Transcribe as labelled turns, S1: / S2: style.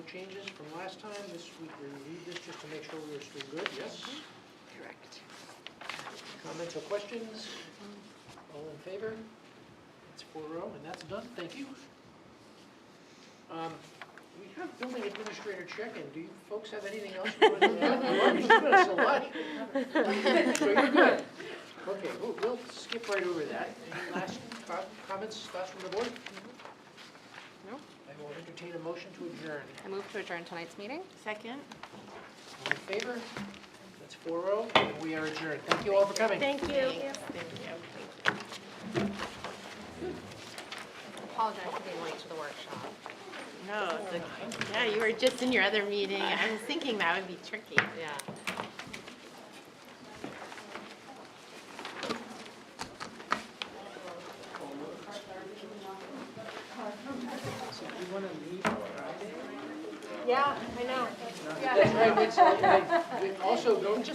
S1: changes from last time. This week we reviewed this just to make sure we were still good, yes?
S2: Correct.
S1: Comments or questions? All in favor? That's four oh, and that's done, thank you. Um, We have building administrator check-in, do you folks have anything else? you want to add? We've already given us a lot. So you're good. Okay, we'll, we'll skip right over that. Any last co- comments, thoughts from the board?
S2: No.
S1: I will entertain a motion to adjourn.
S2: I move to adjourn tonight's meeting.
S3: Second.
S1: All in favor? That's four oh, and we are adjourned. Thank you all for coming.
S3: Thank you.
S2: Apologize for being late to the workshop.
S3: No, it's okay. Yeah, you were just in your other meeting. I was thinking that would be tricky.
S2: Yeah.
S1: So do you want to leave Friday?
S3: Yeah, I know.
S1: That's right, that's right. We also don't